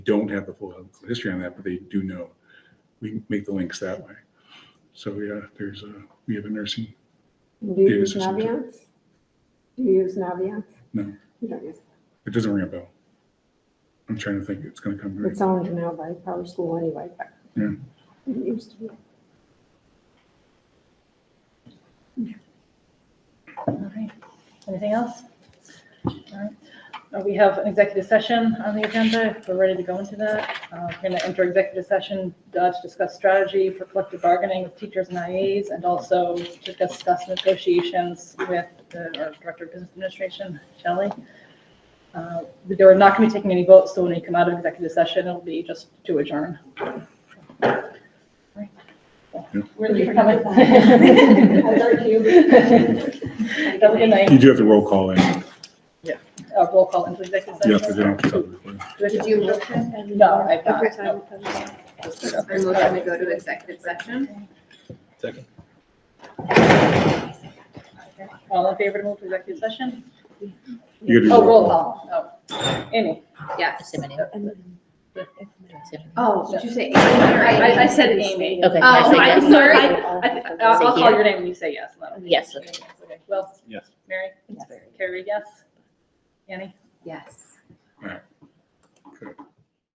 don't have the full history on that, but they do know. We make the links that way. So yeah, there's a, we have a nursing, Do you Data use systems. Naviance? Do you use Naviance? No. You don't use, it doesn't ring a bell. I'm trying to think, it's gonna come. to me. it's owned now by Power School anyway, but Yeah. it used to Oh, be. All right. Anything else? All right. Uh, We have an executive session on the agenda. If We're ready to go into that. Uh, We're going to enter executive session uh, to discuss strategy for collective bargaining with teachers and IAs and also to discuss negotiations with the- our Director of Business Administration, Shelley. Uh, We're not going to be taking any votes, so when we come out of executive session, it'll be just to adjourn. All right. Thank you for coming. I thought you- Have a good night. You do have to roll call in. Yes, Uh, Roll call into executive they session. don't have to tell the recording. Do we have Did to- you look at? No, I've not. Every time it comes. I Okay. motion to go to executive session. Second. All in favor to move to executive session? You gotta do Oh, roll call. Oh, Amy. Uh, Yes. Simony. Oh, did you say Amy or Amy? I, I said Amy. Okay, I Oh, say I'm yes. sorry. I- I'll I'll call your name when you say yes. Lynn. Yes. Okay. Well, Yes. Mary? Carrie, yes? Annie? Yes. All right. Good.